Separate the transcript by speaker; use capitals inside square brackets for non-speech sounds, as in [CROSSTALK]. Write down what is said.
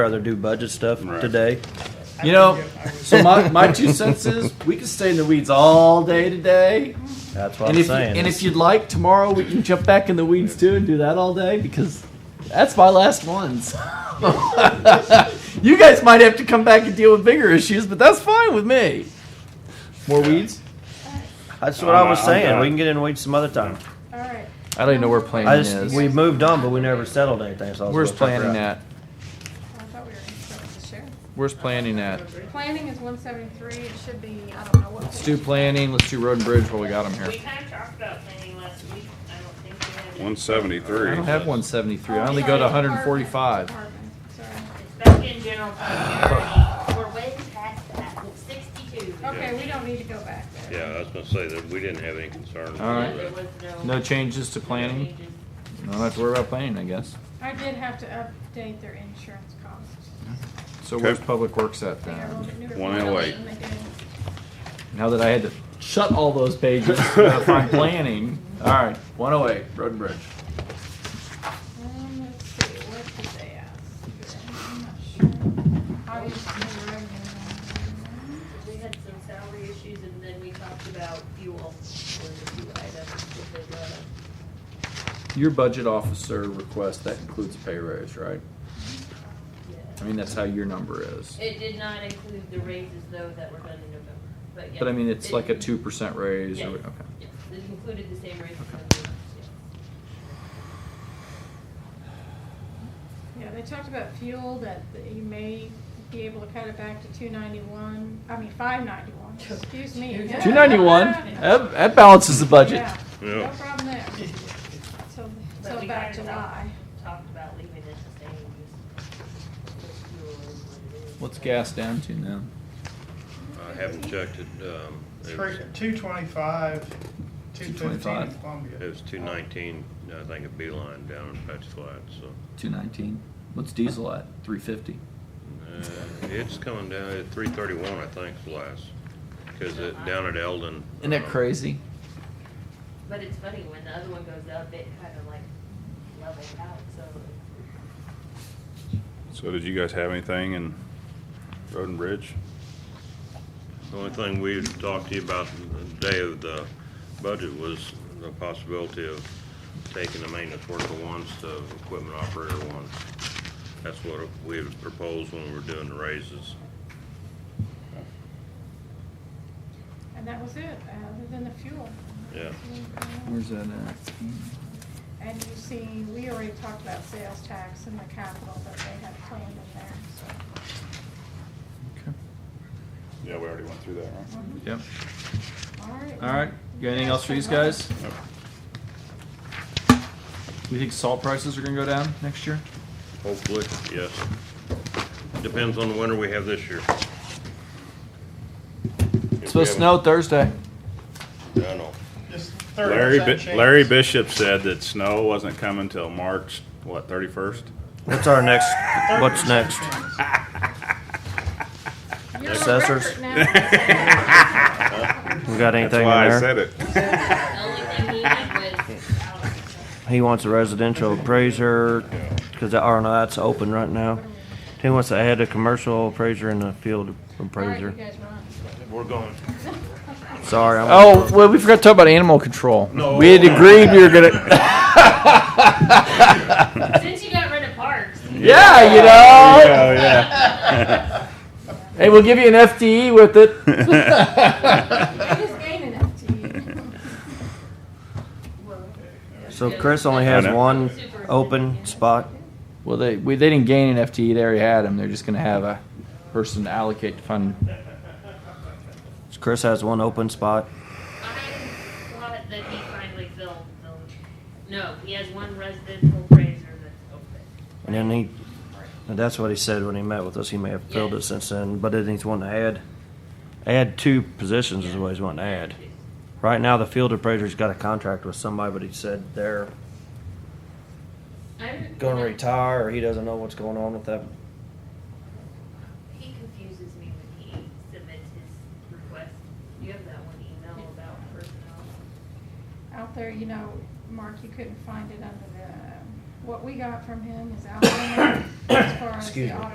Speaker 1: rather do budget stuff
Speaker 2: Right.
Speaker 1: today. [LAUGHS]
Speaker 3: You know, so my, my two cents is we can stay in the weeds all day today.
Speaker 1: That's what I'm
Speaker 3: And if, you-
Speaker 1: saying.
Speaker 3: and if you'd like, tomorrow we can jump back in the weeds too and do that all day because that's my last ones. [LAUGHS] you guys might have to come back and deal with bigger issues, but that's fine with me. More weeds?
Speaker 1: That's what
Speaker 2: I'm
Speaker 1: I was
Speaker 2: not- I'm
Speaker 1: saying.
Speaker 2: not-
Speaker 1: We can get in weeds some other time.
Speaker 2: Mm-hmm.
Speaker 4: All right.
Speaker 3: I don't even know where planning
Speaker 1: I just
Speaker 3: is.
Speaker 1: we moved on, but we never settled anything. So I was
Speaker 3: Where's
Speaker 1: a little tougher
Speaker 3: planning
Speaker 1: out.
Speaker 3: at?
Speaker 4: Well, I thought we were gonna start with the sheriff.
Speaker 3: Where's planning at?
Speaker 4: Planning is one seventy-three, it should be, I don't know what.
Speaker 3: Let's do planning. Let's do road and bridge while we got them
Speaker 5: We
Speaker 3: here.
Speaker 5: kind of talked about planning last week. I don't think we had.
Speaker 2: One seventy-three.
Speaker 3: I don't have 173. I only go to 145.
Speaker 4: Department, sorry.
Speaker 5: It's back in general fund. We're way past that. It's sixty-two.
Speaker 4: Okay, we don't need to go back there.
Speaker 6: Yeah, I was gonna say that we didn't have any concerns.
Speaker 3: All right.
Speaker 5: There was no-
Speaker 3: No changes to planning. No, I have to worry about planning, I guess.
Speaker 4: I did have to update their insurance costs.
Speaker 3: So
Speaker 2: Okay.
Speaker 3: where's Public Works at
Speaker 4: They are a
Speaker 3: then?
Speaker 4: little bit newer. Um,
Speaker 2: 108.
Speaker 4: than they do.
Speaker 3: Now that I had to shut all those pages uh, from planning. All right, 108, Road and Bridge.
Speaker 4: Um, let's see, what did they ask? I'm not sure. Obviously, the revenue.
Speaker 5: We had some salary issues and then we talked about fuel for the two items that they brought up.
Speaker 3: Your budget officer request, that includes a pay raise, right? I mean, that's how your number is.
Speaker 5: It did not include the raises though that were done in November, but yeah.
Speaker 3: But I mean, it's
Speaker 5: It-
Speaker 3: like a 2% raise.
Speaker 5: Yes,
Speaker 3: Or, okay.
Speaker 5: yes. It included the same raises.
Speaker 4: Yeah, they talked about fuel, that you may be able to cut it back to two ninety-one, I mean, five ninety-one, excuse me.
Speaker 3: 291, that, that balances the budget.
Speaker 4: Yeah, no
Speaker 6: Yeah.
Speaker 4: problem there. So, so about July.
Speaker 5: Talked about leaving it the same. just fuel is what it is.
Speaker 3: What's gas down to now?
Speaker 6: I haven't checked it, um, it was,
Speaker 7: Two twenty-five, two fifteen
Speaker 3: 225.
Speaker 7: in Columbia.
Speaker 6: it was two nineteen, I think, at Beeline down in Patch Flat, so.
Speaker 3: 219. What's diesel at? 350.
Speaker 6: Uh, It's coming down at three thirty-one, I think, is the last, cause it, down at Eldon.
Speaker 3: Isn't that
Speaker 6: uh,
Speaker 3: crazy?
Speaker 5: But it's funny, when the other one goes up, it kind of like levels out, so.
Speaker 2: So did you guys have anything in Road and Bridge?
Speaker 6: The only thing we had talked to you about the day of the budget was the possibility of taking the maintenance worker ones to equipment operator ones. That's what we had proposed when we were doing the raises.
Speaker 4: And that was it, other than the fuel.
Speaker 6: Yeah.
Speaker 3: Where's that at? Mm,
Speaker 4: And you see, we already talked about sales tax and the capital that they had planned in there, so.
Speaker 3: Okay.
Speaker 2: Yeah, we already went through that, right?
Speaker 3: Yep.
Speaker 4: All right.
Speaker 3: All right. You got anything else for these guys?
Speaker 2: Nope.
Speaker 3: We think salt prices are gonna go down next year?
Speaker 6: Hopefully, yes. Depends on the winter we have this year.
Speaker 3: It's supposed to snow Thursday.
Speaker 6: I know.
Speaker 7: Just
Speaker 2: Larry,
Speaker 7: thirty
Speaker 2: Bi-
Speaker 7: percent chance.
Speaker 2: Larry Bishop said that snow wasn't coming till March, what, thirty-first?
Speaker 1: What's our next? What's next?
Speaker 4: You're on
Speaker 1: Assessors.
Speaker 3: [LAUGHS]
Speaker 4: record now.
Speaker 1: We got anything in there?
Speaker 2: it.
Speaker 5: The only thing he did was,
Speaker 1: He wants a residential appraiser because the R and that's open right now. He wants to add a commercial appraiser and a field
Speaker 4: All right, you
Speaker 1: appraiser.
Speaker 4: guys run.
Speaker 6: We're going.
Speaker 1: Sorry, I'm.
Speaker 3: Oh, well, we forgot to talk about animal control. We had agreed we were gonna,
Speaker 5: since you got rid of parks,
Speaker 3: yeah, you know?
Speaker 2: Oh, [LAUGHS] yeah.
Speaker 3: Hey, we'll give you an FTE with
Speaker 2: Oh,
Speaker 3: it. [LAUGHS]
Speaker 4: I just gained an FTE.
Speaker 1: So Chris only has
Speaker 2: I know.
Speaker 1: one open spot.
Speaker 3: Well, they, we, they didn't gain an FTE, they already had them. They're just gonna have a person to allocate to fund.
Speaker 1: Chris has one open spot.
Speaker 5: I'm glad that he finally filled the, no, he has one residential appraiser that's open.
Speaker 1: And then he, and that's what he said when he met with us. He may have filled it since then, but then he's wanting to add, add two positions is what he's wanting to add. Right now, the field appraiser's got a contract with somebody, but he said they're
Speaker 5: I'm
Speaker 1: going to retire, or he doesn't know what's going on with that.
Speaker 5: He confuses me when he submits his request. You have that one email about personnel.
Speaker 4: out there, you know, Mark, you couldn't find it under the, what we got from him is out there as far as
Speaker 1: Excuse
Speaker 4: the
Speaker 1: me.
Speaker 4: audit